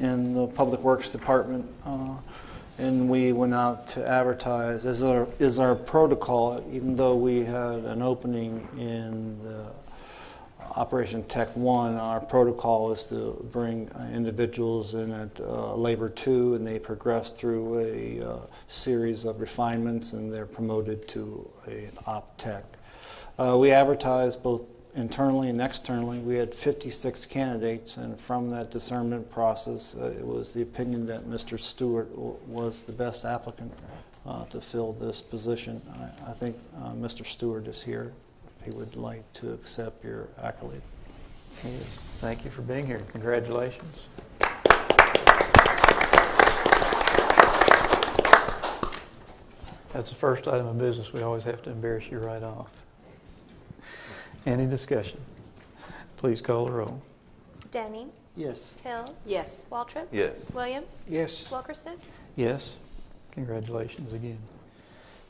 in the Public Works Department, uh, and we went out to advertise, as our, is our protocol, even though we had an opening in the Operation Tech One, our protocol is to bring uh, individuals in at uh, Labor Two, and they progress through a uh, series of refinements, and they're promoted to an op tech. Uh, we advertised both internally and externally. We had 56 candidates, and from that discernment process, uh, it was the opinion that Mr. Stewart w- was the best applicant uh, to fill this position. I, I think uh, Mr. Stewart is here if he would like to accept your accolade. He is. Thank you for being here. Congratulations. That's the first item of business. We always have to embarrass you right off. Any discussion? Please call the roll. Denning. Yes. Hill. Yes. Waltrip. Yes. Williams. Yes. Wilkerson. Yes? Congratulations again.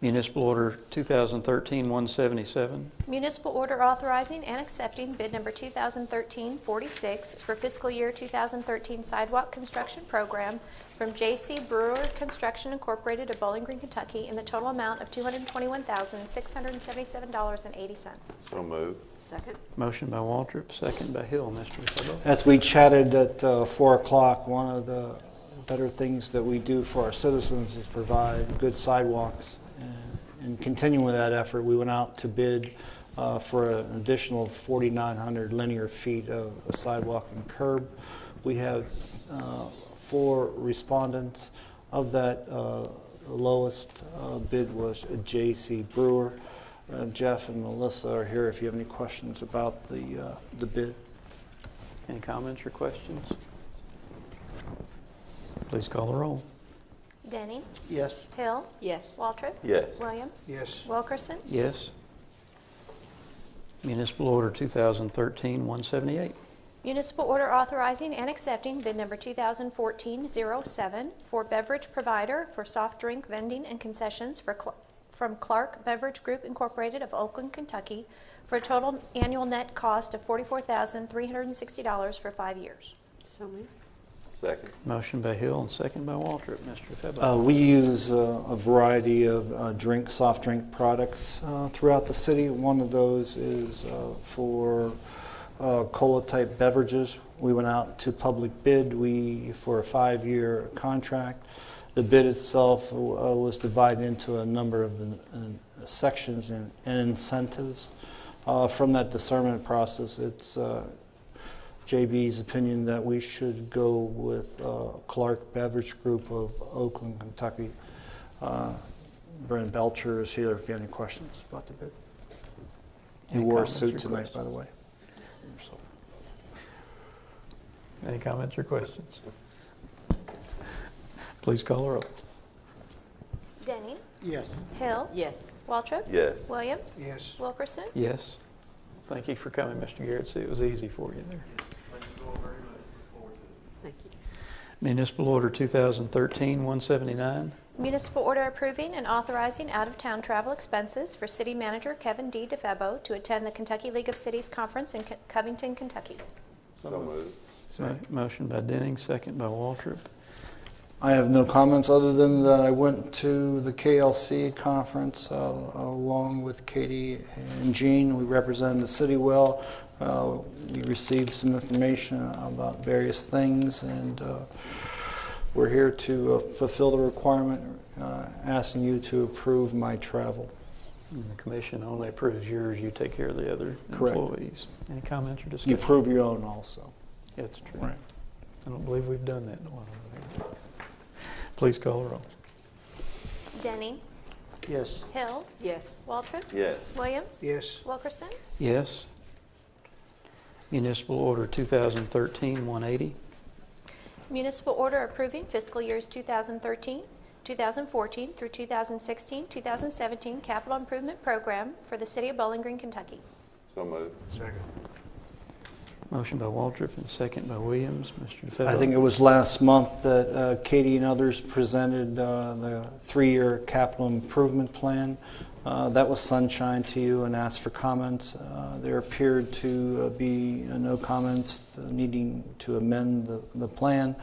Municipal Order 2013-177. Municipal order authorizing and accepting bid number 2013-46 for fiscal year 2013 sidewalk construction program from J.C. Brewer Construction Incorporated of Bowling Green, Kentucky, in the total amount of $221,677.80. So moved. Second? Motion by Waltrip, second by Hill. Mr. Sabo. As we chatted at uh, 4 o'clock, one of the better things that we do for our citizens is provide good sidewalks. And- And continuing with that effort, we went out to bid uh, for an additional 4,900 linear feet of sidewalk and curb. We have uh, four respondents. Of that, uh, the lowest uh, bid was J.C. Brewer. Uh, Jeff and Melissa are here if you have any questions about the uh, the bid. Any comments or questions? Please call the roll. Denning. Yes. Hill. Yes. Waltrip. Yes. Williams. Yes. Wilkerson. Yes. Municipal Order 2013-178. Municipal order authorizing and accepting bid number 2014-07 for beverage provider for soft drink vending and concessions for Cl- from Clark Beverage Group Incorporated of Oakland, Kentucky, for a total annual net cost of $44,360 for five years. So moved. Second. Motion by Hill and second by Waltrip. Mr. Uh, Febo. we use uh, a variety of uh, drink, soft drink products uh, throughout the city. One of those is uh, for uh, cola type beverages. We went out to public bid we, for a five year contract. The bid itself uh, was divided into a number of uh, sections and, and incentives. Uh, from that discernment process, it's uh, JB's opinion that we should go with uh, Clark Beverage Group of Oakland, Kentucky. Uh, Brent Belcher is here if you have any questions about the bid. He Any wore a comments suit or tonight, by the way. So- Any comments or questions? Please call the roll. Denning. Yes. Hill. Yes. Waltrip. Yes. Williams. Yes. Wilkerson. Yes. Thank you for coming, Mr. Garrett. See, it was easy for you there. Thank you. Municipal Order 2013-179. Municipal order approving and authorizing out-of-town travel expenses for city manager Kevin D. DeFebo to attend the Kentucky League of Cities Conference in Co- Covington, Kentucky. So moved. Mo- Motion by Denning, second by Waltrip. I have no comments other than that I went to the KLC conference uh, along with Katie and Jean. We represented the city well. Uh, we received some information about various things, and uh, we're here to uh, fulfill the requirement, uh, asking you to approve my travel. And The commission only approves yours. You take care of the other Correct. employees. Any comments or You discussion? approve your own also. That's true. I don't believe we've done that in a while. Please call the roll. Denning. Yes. Hill. Yes. Waltrip. Yes. Williams. Yes. Wilkerson. Yes. Municipal Order 2013-180. Municipal order approving fiscal years 2013, 2014 through 2016, 2017 capital improvement program for the city of Bowling Green, Kentucky. So moved. Second. Motion by Waltrip and second by Williams. Mr. DeFebo. I think it was last month that uh, Katie and others presented uh, the three-year capital improvement plan. Uh, That was sunshine to you and asked for comments. Uh, There appeared to uh, be uh, no comments needing to amend the the plan.